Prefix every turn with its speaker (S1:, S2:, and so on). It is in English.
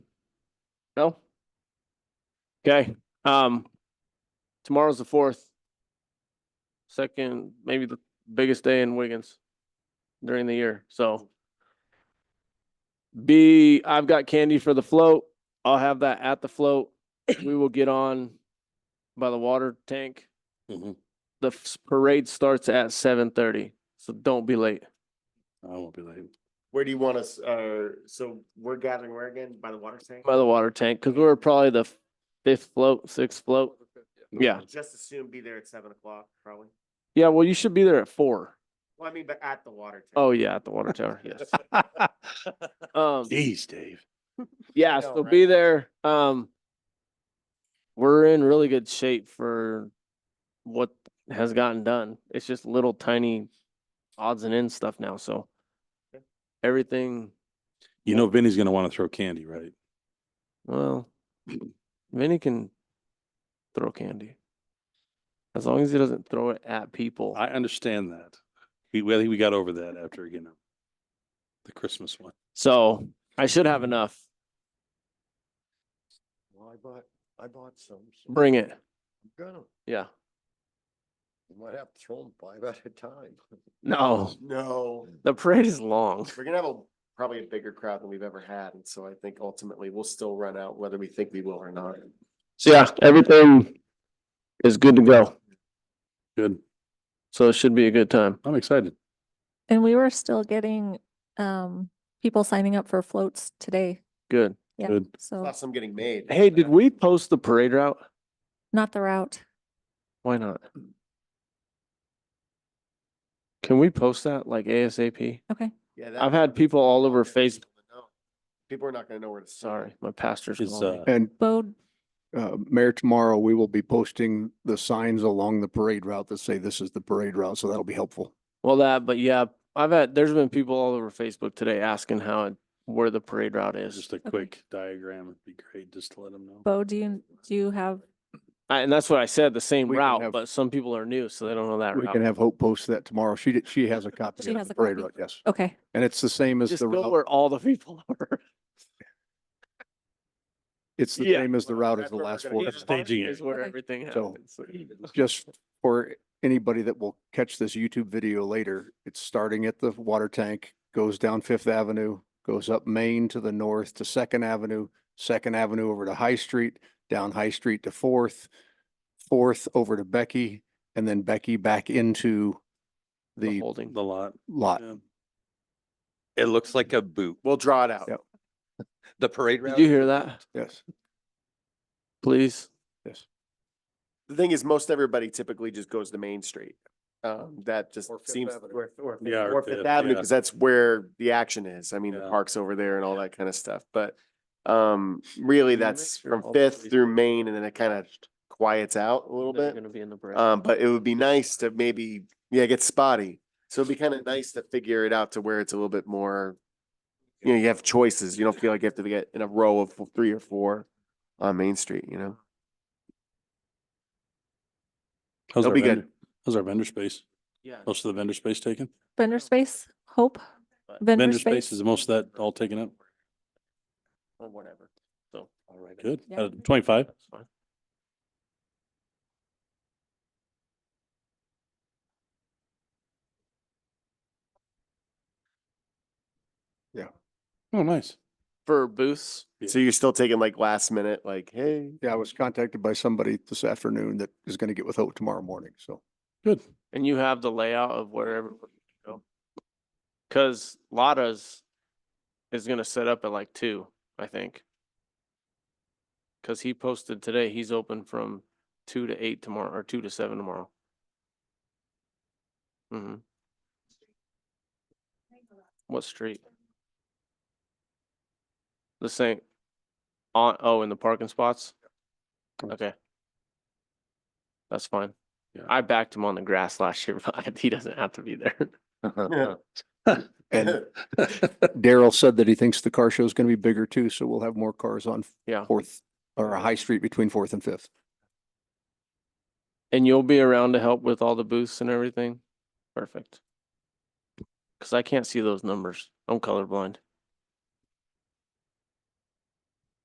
S1: No? Okay, um, tomorrow's the fourth. Second, maybe the biggest day in Wiggins during the year, so. B, I've got candy for the float. I'll have that at the float. We will get on by the water tank.
S2: Mhm.
S1: The f- parade starts at seven thirty, so don't be late.
S2: I won't be late.
S3: Where do you want us, uh, so we're gathering where again? By the water tank?
S1: By the water tank, because we're probably the f- fifth float, sixth float. Yeah,
S3: Just as soon be there at seven o'clock, probably.
S1: yeah, well, you should be there at four.
S3: Well, I mean, but at the water tank.
S1: Oh, yeah, at the water tower, yes. Um,
S2: Jeez, Dave.
S1: yeah,
S3: know,
S1: so
S3: right?
S1: be there. Um, we're in really good shape for what has gotten done. It's just little tiny odds and ends stuff now, so
S3: Okay.
S1: everything,
S2: You know Vinny's gonna want to throw candy, right?
S1: well, Vinny can throw candy. As long as he doesn't throw it at people.
S2: I understand that. We, well, we got over that after, you know, the Christmas one.
S1: So I should have enough.
S3: Well, I bought, I bought some. so
S1: Bring it.
S3: I'm Gonna,
S1: Yeah.
S3: might have to throw them five at a time.
S1: No,
S3: No,
S1: the parade is long.
S3: we're gonna have a, probably a bigger crowd than we've ever had, and so I think ultimately we'll still run out whether we think we will or not.
S1: So yeah, everything is good to go.
S2: Good.
S1: So it should be a good time.
S2: I'm excited.
S4: And we were still getting um people signing up for floats today,
S1: Good.
S4: Yeah.
S2: Good.
S4: so
S3: Plus, I'm getting made.
S1: Oh. Hey, did we post the parade route?
S4: not the route.
S1: Why not? Can we post that like ASAP?
S4: Okay.
S3: Yeah, that-
S1: I've had people all over
S3: They're not
S1: Facebook.
S3: gonna know. People are not gonna know where to. start.
S1: Sorry, my pastor's
S2: Is,
S1: calling me.
S2: uh,
S5: And
S4: Bode,
S5: uh, Mayor, tomorrow we will be posting the signs along the parade route that say this is the parade route, so that'll be helpful.
S1: Well, that, but yeah, I've had, there's been people all over Facebook today asking how, it where the parade route is.
S2: Just a quick diagram would be great, just to let them know.
S4: Bo, do you, do you have,
S1: I- And that's what I said, the same
S5: We can
S1: route,
S5: have-
S1: but some people are new, so they don't know that
S5: We can
S1: route.
S5: have Hope post that tomorrow. She, did- she has a copy
S4: She
S5: of
S4: has
S5: the
S4: a
S5: parade
S4: copy.
S5: route, yes.
S4: okay,
S5: And it's the same as
S1: Just
S5: the
S1: go
S5: route,
S1: where all the people are.
S5: it's the
S1: yeah.
S5: same as the route as
S3: That's
S5: the
S3: where we're
S5: last
S3: gonna
S5: four.
S3: get
S2: Just staging
S1: Is
S2: it.
S1: where
S4: Okay.
S1: everything
S5: So-
S1: happens.
S5: Just for anybody that will catch this YouTube video later, it's starting at the water tank, goes down Fifth Avenue, goes up Main to the north to Second Avenue, Second Avenue over to High Street, down High Street to Fourth, Fourth over to Becky, and then Becky back into
S1: The
S5: the
S1: holding.
S2: The lot.
S5: lot.
S2: yeah.
S6: It looks like a boot.
S3: We'll draw it out.
S5: Yep.
S6: The parade route.
S1: Did you hear that?
S5: Yes,
S1: Please.
S5: yes.
S3: The thing is, most everybody typically just goes to Main Street. Um, that just
S5: Or Fifth
S3: seems.
S5: Avenue.
S3: or- or Fifth-
S2: Yeah, or
S3: Or Fifth
S2: Fifth,
S3: Avenue,
S2: yeah.
S3: because that's where the action is. I mean, the
S2: Yeah.
S3: park's over there and all that kind of stuff, but. Um, really,
S1: Can you make
S3: that's
S1: sure all
S3: from
S1: the
S3: Fifth
S1: police-
S3: through Main and then it kind of quiets out a little
S1: that are
S3: bit.
S1: Gonna be in the parade.
S3: Um, but it would be nice to maybe, yeah, get spotty. So it'd be
S1: Mm-hmm.
S3: kind of nice to figure it out to where it's a little bit more. You know, you have choices. You don't feel like you have to get in a row of three or four on Main Street, you know?
S2: How's
S3: They'll
S2: our
S3: be good.
S2: vendor- How's our vendor space?
S1: Yeah.
S2: Most of the vendor space taken?
S4: vendor space, hope?
S2: Vendor space is most of that all taken up?
S1: Or whatever, so. All right.
S2: Good.
S4: Yeah.
S2: Uh, Twenty-five?
S1: That's fine.
S2: Oh, nice.
S1: For booths,
S3: So you're still taking like last minute, like, hey.
S5: Yeah, I was contacted by somebody this afternoon that is going to get with Hope tomorrow morning, so.
S2: Good.
S1: and you have the layout of wherever we go. Cause Lada's is gonna set up at like two, I think. Cause he posted today, he's open from two to eight tomorrow, or two to seven tomorrow. Mm-hmm. What street? The same, on, oh, in the parking spots? Okay. That's fine.
S2: Yeah.
S1: I backed him on the grass last year, but he doesn't have to be there.
S5: And Daryl said that he thinks the car show is going to be bigger too, so we'll have more cars on
S1: Yeah,
S5: Fourth or High Street between Fourth and Fifth.
S1: and you'll be around to help with all the booths and everything? Perfect. Cause I can't see those numbers. I'm colorblind.